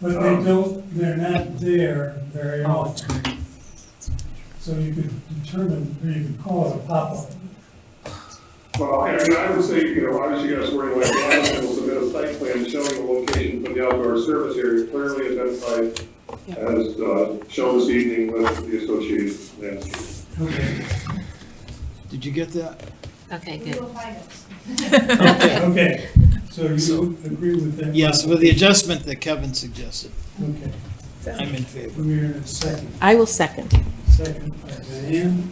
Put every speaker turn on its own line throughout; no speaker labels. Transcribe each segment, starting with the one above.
But they don't, they're not there very often. So you could determine, or you could call it a pop-up.
Well, and and I would say, you know, obviously you guys wording like, Lionsden will submit a site plan showing the location for the outdoor service area clearly identified as, uh, shown this evening with the associated landscape.
Okay,
Did you get that?
Okay,
We
good.
will find it.
okay, so you agree with that?
Yes, with the adjustment that Kevin suggested.
Okay,
I'm in favor.
we're in a second,
I will second.
second by Diane,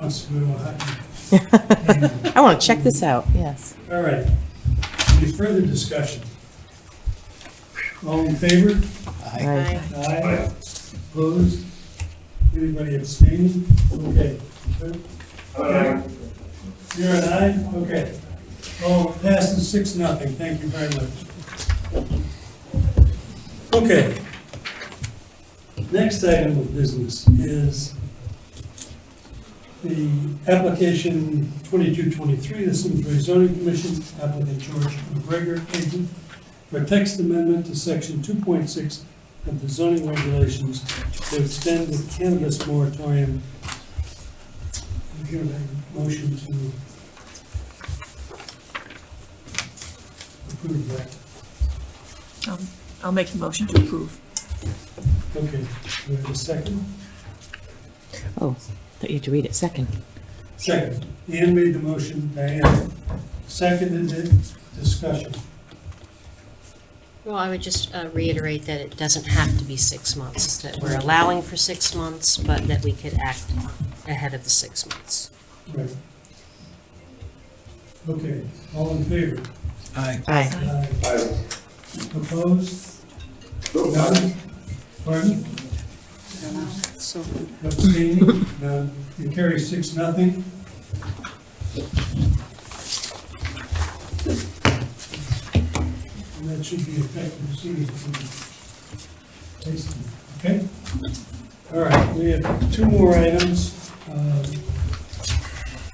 must we will have. to-
I want to check this out, yes.
All right, any further discussion? All in favor?
Aye.
Aye. Opposed? Anybody abstaining? Okay.
Aye.
You're an aye? Okay. Oh, passes six, nothing. Thank you very much. Okay. Next item of business is the application 2223, the Simsbury Zoning Commission, applicant George McGregor, agent, for text amendment to section 2.6 of the zoning regulations to extend the cannabis moratorium. I hear a motion to approve that.
Um, I'll make a motion to approve.
Okay, do we have a second?
Oh, thought you had to read it second.
Second. Ian made the motion, Diane seconded it, discussion.
Well, I would just uh, reiterate that it doesn't have to be six months, that we're allowing for six months, but that we could act ahead of the six months.
Right. Okay, all in favor?
Aye.
Aye.
Aye.
Aye.
Opposed?
Nope.
None? Pardon?
So,
Abstaining? None. You carry six, nothing? And that should be effective soon. Okay? All right, we have two more items. Um,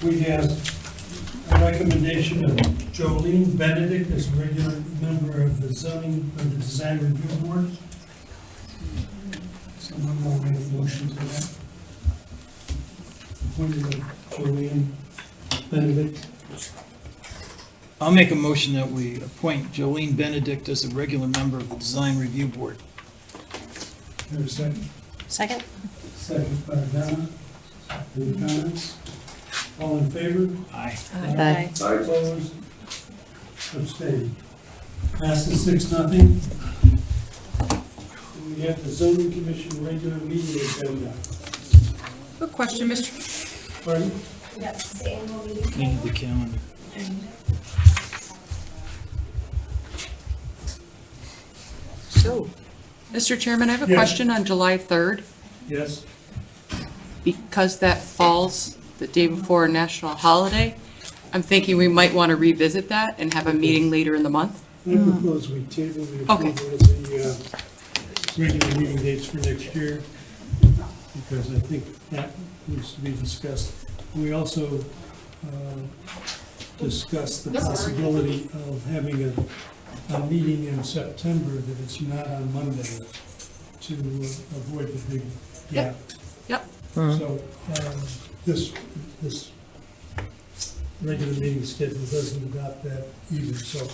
We have a recommendation of Jolene Benedict as a regular member of the zoning, of the design review board. Someone will make a motion to that. Appointed of Jolene Benedict.
I'll make a motion that we appoint Jolene Benedict as a regular member of the Design Review Board.
Have a second.
Second?
Second by Donna. Any comments? All in favor?
Aye.
Aye.
Aye.
Opposed? Abstained. Passes six, nothing. And We have the zoning commission regular meeting agenda.
A question, Mr.
Pardon?
Yes, the annual meeting.
You need the calendar.
So.
Mr. Chairman, I have a
Yes.
question on July 3rd,
Yes.
because that falls the day before a national holiday. I'm thinking we might want to revisit that and have a meeting later in the month.
I propose we table the approval
Hmm. Okay.
of the uh, regular meeting dates for next year, because I think that needs to be discussed. We also uh, discussed the possibility of having a, a meeting in September that it's not on Monday to avoid the big gap.
Yep.
So um, this, this regular meeting schedule doesn't adopt that either, so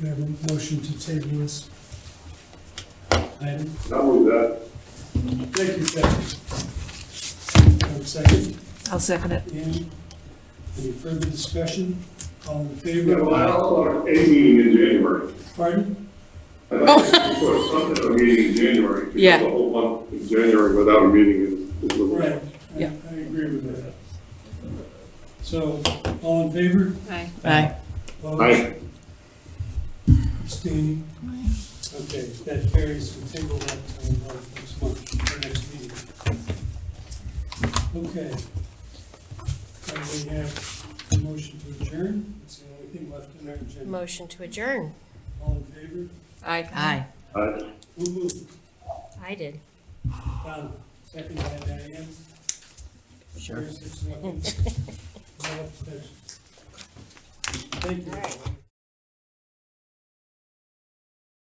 we have a motion to table this item.
I'll move that.
Thank you, Kathy. Have a second,
I'll second it.
Andy? Any further discussion? All in
Yeah, well, I
favor?
also want a meeting in January.
Pardon?
I'd like to put something, a meeting in January. because
Yeah.
The whole month in January without a meeting is, is a little.
Right. I-
Yeah.
I agree with that. So, all in favor?
Aye.
Aye.
Opposed?
Aye.
Abstaining? Okay, that carries, we table that until uh, next month, our next meeting. Okay. And we have a motion to adjourn, it's the only thing left in our agenda.
Motion to adjourn.
All in favor?
Aye.
Aye.
Aye.
Who moved?
I did.
Donna, second by Diane. Sure. Thank you.